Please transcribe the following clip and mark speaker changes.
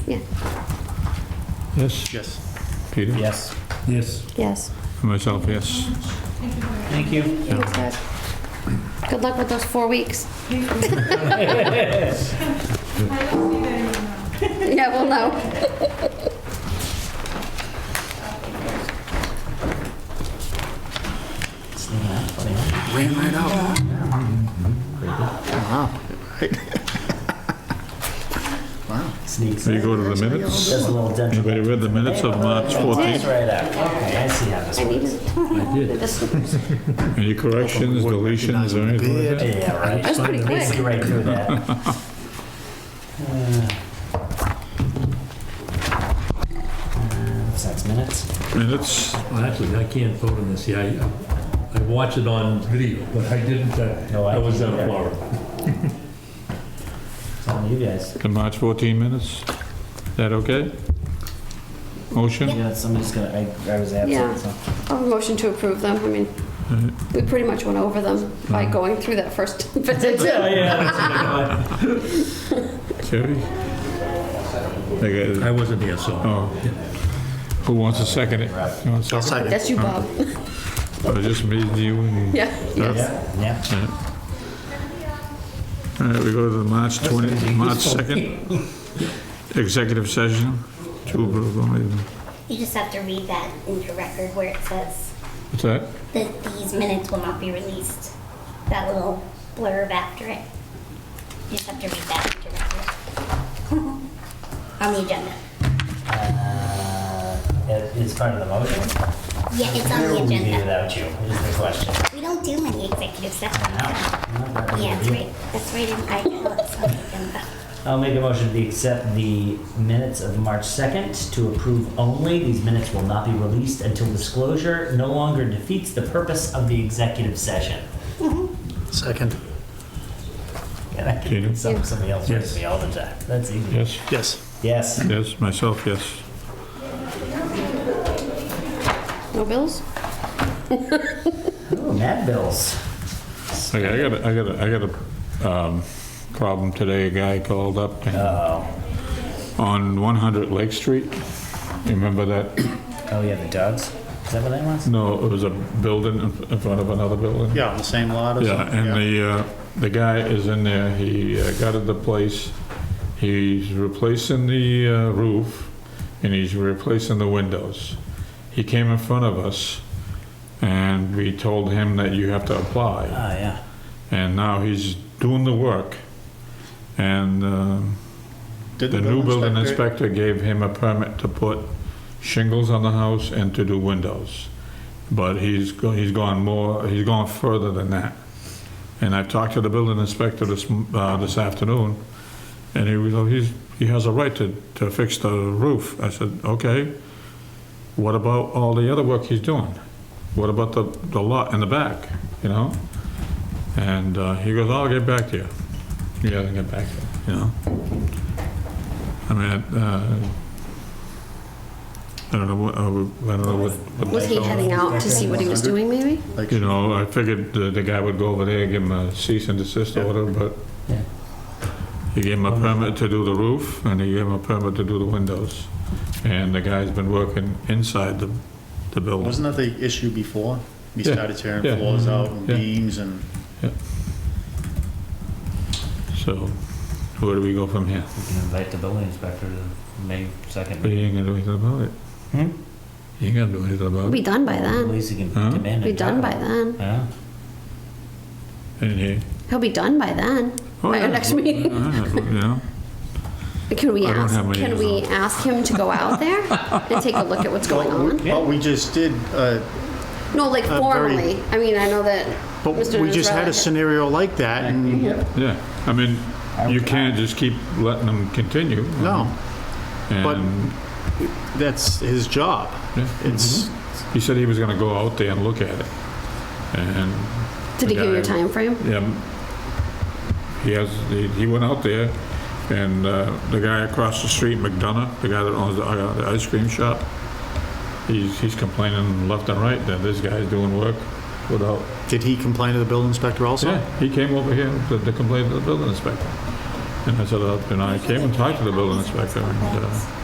Speaker 1: Yes,
Speaker 2: Yes.
Speaker 1: Peter?
Speaker 3: Yes.
Speaker 4: Yes.
Speaker 5: Yes.
Speaker 1: And Myself, yes.
Speaker 3: Thank you.
Speaker 5: Thanks, Doug. Good luck with those four weeks. Yeah, we'll know.
Speaker 2: Ran right up. Wow.
Speaker 3: Sneaks.
Speaker 1: There you go to the
Speaker 2: Actually,
Speaker 1: minutes.
Speaker 3: Just a little dental.
Speaker 1: Anybody read the minutes of March 14th?
Speaker 3: That's right up. Okay, I see how this
Speaker 5: I
Speaker 3: works.
Speaker 5: needed this.
Speaker 1: Any corrections, deletions, or anything like that?
Speaker 3: Yeah, right.
Speaker 5: That's pretty quick.
Speaker 3: Basically right through that. What's next, minutes?
Speaker 1: Minutes,
Speaker 4: Well, actually, I can't vote on this. Yeah, I, I watched it on video, but I didn't, uh,
Speaker 3: No, I
Speaker 4: I was
Speaker 3: can't
Speaker 4: on
Speaker 3: either.
Speaker 4: Florida.
Speaker 3: It's on you guys.
Speaker 1: the March 14 minutes? That okay? Motion?
Speaker 3: Yeah, somebody's gonna, I, I was
Speaker 5: Yeah.
Speaker 3: absent, so.
Speaker 5: I'll motion to approve them. I mean, we pretty much went over them by
Speaker 1: Mm.
Speaker 5: going through that first visit.
Speaker 3: Yeah, Oh, yeah.
Speaker 1: Terry? They got
Speaker 4: I
Speaker 1: it.
Speaker 4: wasn't here, so.
Speaker 1: Oh. Who wants to second it? You want to
Speaker 2: I'll
Speaker 1: second
Speaker 2: second.
Speaker 5: That's you, Bob.
Speaker 1: it? Or just me, you, and...
Speaker 5: Yeah, yes.
Speaker 3: Yeah, yeah.
Speaker 1: All right, we go to the March 20, March 2nd, executive session. To approve only.
Speaker 6: You just have to read that into record where it says
Speaker 1: What's that?
Speaker 6: that these minutes will not be released. That little blurb after it. You just have to read that into record. On the agenda.
Speaker 3: Uh, it- It's part of the motion.
Speaker 6: Yeah, it's on
Speaker 3: Where
Speaker 6: the
Speaker 3: would we be
Speaker 6: agenda.
Speaker 3: without you, is the question.
Speaker 6: We don't do many executive sessions.
Speaker 3: No.
Speaker 6: Yeah, that's right. That's right in my it's on the agenda.
Speaker 3: I'll make a motion to accept the minutes of March 2nd to approve only. These minutes will not be released until disclosure no longer defeats the purpose of the executive session.
Speaker 2: Second.
Speaker 3: And I can
Speaker 1: Tina?
Speaker 3: get some- somebody else
Speaker 4: Yes.
Speaker 3: with me all the time. That's easy.
Speaker 1: Yes?
Speaker 2: Yes.
Speaker 3: Yes.
Speaker 1: Yes, myself, yes.
Speaker 5: No bills?
Speaker 3: Ooh, Mad Bills.
Speaker 1: Okay, I got a, I got a, I got a um, problem today. A guy called up
Speaker 3: Oh,
Speaker 1: on 100 Lake Street. You remember that?
Speaker 3: oh yeah, the dogs. Is that what that was?
Speaker 1: No, it was a building in- in front of another building.
Speaker 2: Yeah, on the same lot as.
Speaker 1: Yeah, and the, uh, the guy is in there, he uh, gutted the place, he's replacing the uh, roof, and he's replacing the windows. He came in front of us, and we told him that you have to
Speaker 3: Oh,
Speaker 1: apply,
Speaker 3: yeah.
Speaker 1: and now he's doing the work. And uh,
Speaker 2: Did
Speaker 1: the new building
Speaker 2: inspector-
Speaker 1: inspector gave him a permit to put shingles on the house and to do windows. But he's, go- he's gone more, he's gone further than that. And I talked to the building inspector this, m- uh, this afternoon, and he was, oh, he's, he has a right to, to fix the roof. I said, okay, what about all the other work he's doing? What about the, the lot in the back, you know? And uh, he goes, I'll get back to you. He hasn't got back to you, you know? I mean, uh, I don't know, what- I would- I don't know what. what
Speaker 5: Was he
Speaker 1: they're
Speaker 5: heading out to see what he was doing, maybe?
Speaker 2: Like,
Speaker 1: you know, I figured the, the guy would go over there and give him a cease and desist order, but
Speaker 3: Yeah.
Speaker 1: he gave him a permit to do the roof, and he gave him a permit to do the windows. And the guy's been working inside the, the building.
Speaker 2: Wasn't that the issue before? We
Speaker 1: Yeah,
Speaker 2: started
Speaker 1: yeah, Mm-hmm.
Speaker 2: tearing floors out and
Speaker 1: yeah.
Speaker 2: beams and.
Speaker 1: So where do we go from here?
Speaker 7: We can invite the building inspector to May
Speaker 1: But
Speaker 7: 2nd.
Speaker 1: he ain't gonna do anything about it.
Speaker 3: Hmm?
Speaker 1: He ain't gonna do anything
Speaker 5: We'll
Speaker 1: about
Speaker 5: be
Speaker 1: it.
Speaker 5: done by
Speaker 3: At
Speaker 5: then.
Speaker 3: least you can
Speaker 1: Huh?
Speaker 3: demand
Speaker 5: We'll
Speaker 3: it.
Speaker 5: be done by then.
Speaker 7: Yeah,
Speaker 1: And he.
Speaker 5: He'll be done by then,
Speaker 1: Oh,
Speaker 5: by
Speaker 1: yeah.
Speaker 5: our next meeting.
Speaker 1: Yeah, You know,
Speaker 5: Can we
Speaker 1: I don't
Speaker 5: ask,
Speaker 1: have my
Speaker 5: can
Speaker 1: ears
Speaker 5: we
Speaker 1: on.
Speaker 5: ask him to go out there and take a look at what's going
Speaker 2: What
Speaker 5: on?
Speaker 2: we- what we just did, uh,
Speaker 5: No, like
Speaker 2: I'm very-
Speaker 5: formally. I mean, I know that
Speaker 2: but
Speaker 5: Mr.
Speaker 2: we just had a
Speaker 5: Nazralek-
Speaker 2: scenario like that and,
Speaker 1: yeah, I mean, you can't just keep letting them continue.
Speaker 2: no, but
Speaker 1: And
Speaker 2: that's his job.
Speaker 1: Yeah. Mm-hmm.
Speaker 2: It's,
Speaker 1: He said he was gonna go out there and look at it. And,
Speaker 5: Did he give you a
Speaker 1: guy-
Speaker 5: time frame?
Speaker 1: yeah, he has, he- he went out there, and uh, the guy across the street, McDonough, the guy that owns the uh, the ice cream shop, he's he's complaining left and right that this guy's doing work without,
Speaker 2: did he complain to the building inspector also?
Speaker 1: yeah, he came over here to to complain to the building inspector. And I said, uh, and I came and talked to the building inspector, and, uh,